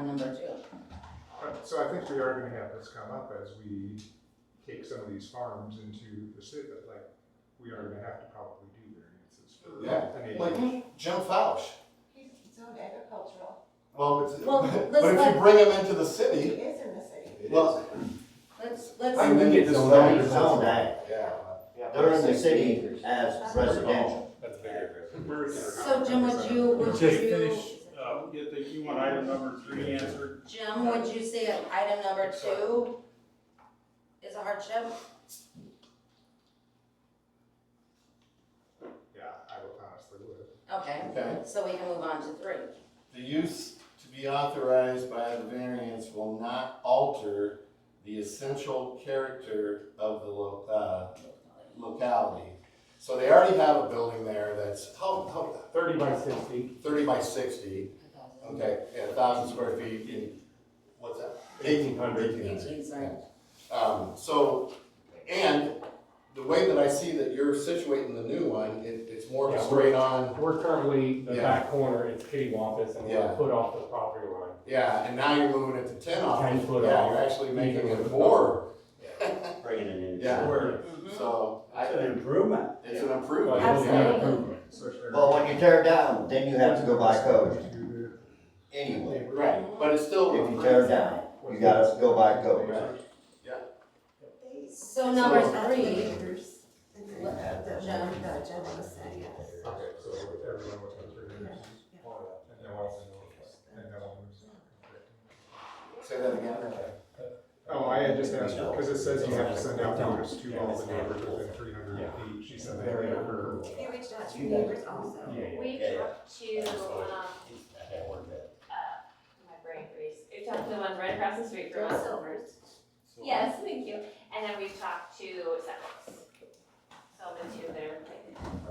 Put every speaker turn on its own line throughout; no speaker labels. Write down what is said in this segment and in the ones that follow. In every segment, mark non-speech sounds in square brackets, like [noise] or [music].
number two.
Uh, So I think we are gonna have this come up as we take some of these farms into the city, but like, we are gonna have to probably do variances for.
Yeah,
I mean,
Like Jim Fausch.
He's zoned agricultural,
Well, it's,
Well,
[laughs] but
let's
if you
let-
bring him into the
he
city,
is in the city.
well,
Let's, let's,
I mean,
get
it's
this
zoned,
right.
it's zoned.
Right.
Yeah.
They're in the city as residential.
That's bigger.
so Jim, would you, would
Just
you,
finish, uh, get the, you want item number three answered?
Jim, would you say that item number two is a hardship?
Yeah, I would honestly would.
Okay,
Okay.
so we can move on to three.
The use to be authorized by the variance will not alter the essential character of the lo- uh, locality. So they already have a building there that's, how, how,
Thirty by sixty.
thirty by sixty, okay, and a thousand square feet, and, what's that? Eighteen hundred. Eighteen hundred.
Eighteen, sorry.
Um, so, and the way that I see that you're situating the new one, it, it's more
Yeah.
straight on,
We're currently, the
Yeah.
back corner is kitty wampus and we're
Yeah.
a foot off the property line.
yeah, and now you're moving it to ten off.
10 foot
Yeah,
off.
you're actually making
Even
it
with-
more,
Bringing it in.
Yeah.
Or-
Mhm.
so
That's
I,
an improvement.
it's an
Well,
improvement.
it is an
yeah.
Absolutely.
improvement.
So if-
Well, when you tear it down, then you have to go by code
To
anyway.
Right, but it's still.
If you tear it down, you gotta go by code.
So number
uh,
So-
three,
What, the, the general city, yes.
the- Okay, so everyone was on three minutes. And no one, and no one was.
Say that again.
Oh, I had just asked her, because it says you have to send out notice to all the neighbors within three hundred feet, she said they had her.
They reached out to neighbors also.
We've talked to, um, uh, my brain freeze, we've talked to the one right across the street from
They're
us.
silvers.
Yes, thank you, and then we've talked to setbacks. So the two there.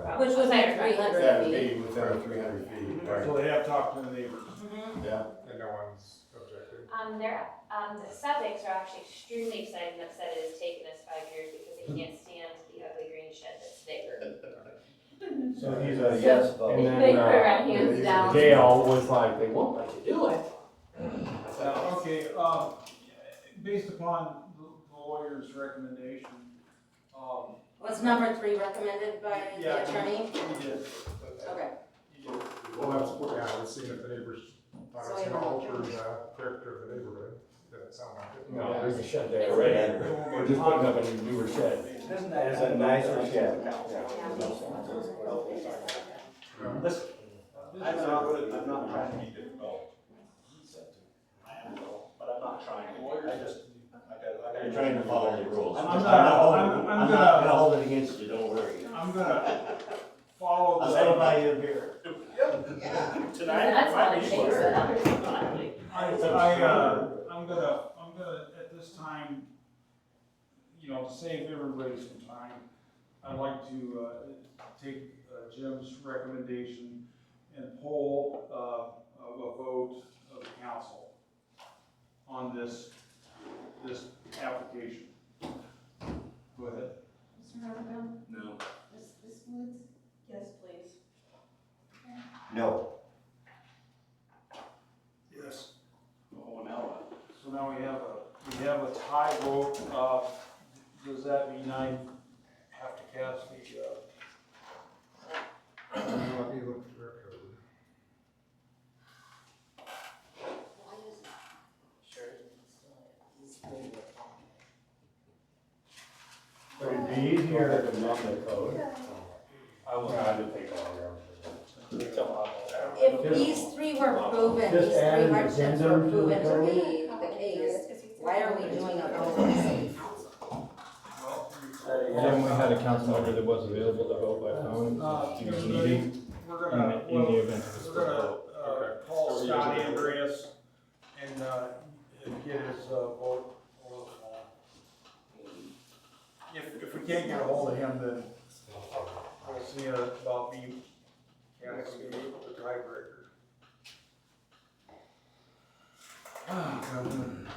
like,
which was like
outside
three
of-
Yeah,
hundred feet.
it'd be within the three hundred feet, right,
Right. Right. So
So they have talked to the neighbors.
Mhm.
yeah.
And no one's objected.
Um, they're, um, the setbacks are actually extremely excited and upset it has taken us five years because they can't stand the ugly green shed that's there.
So he's a yes
And
vote.
then,
They put
uh,
around hands down.
Gail was like, they won't let you do it.
Now,
Okay, um, based upon the the lawyer's recommendation, um,
Was number three recommended by the
Yeah.
attorney?
he did,
Okay.
he did.
Well, that's, what- yeah, let's see if the neighbors, uh, thought it was gonna alter the character of the neighborhood, doesn't sound like it.
No, there's a shed there,
Right.
right? We're just putting up a newer shed.
Isn't that, is a nicer shed?
Listen,
I'm not- I'm not trying
to be difficult. I am, but I'm not trying. I just, I got,
You're trying to follow the rules.
I'm not-
holding-
I'm- I'm
I'm not
gonna-
gonna hold it against you, don't worry.
I'm gonna follow the.
I'll settle by your beer.
That's not a shame, so that was fun.
I, I, uh, I'm gonna, I'm gonna, at this time, you know, to save everybody some time, I'd like to, uh, take uh, Jim's recommendation and poll, uh, of a vote of the council on this, this application. Go ahead.
Mr. Novacom?
No.
Ms. Ms. Woods? Yes, please.
No.
Yes. Oh, now. So now we have a, we have a tie vote, uh, does that mean I have to cast the, uh,
Let me look through our code.
But it'd be easier to amend the code. I will try to take longer.
If these three were proven,
Just
these
add
three
an
hardships were
addendum to the
proven to
code.
be the case, why are we doing a vote on the city council?
well,
Then we had a council member that was available to vote by phone.
uh,
Do you need
everybody, we're gonna,
In the
well,
event of a
we're
split
gonna,
vote.
uh, call Scott Andreas and, uh, and get his, uh, vote. over the line. If, if we can't get a hold of him, then we'll see about me casting the tiebreaker. Ah, God.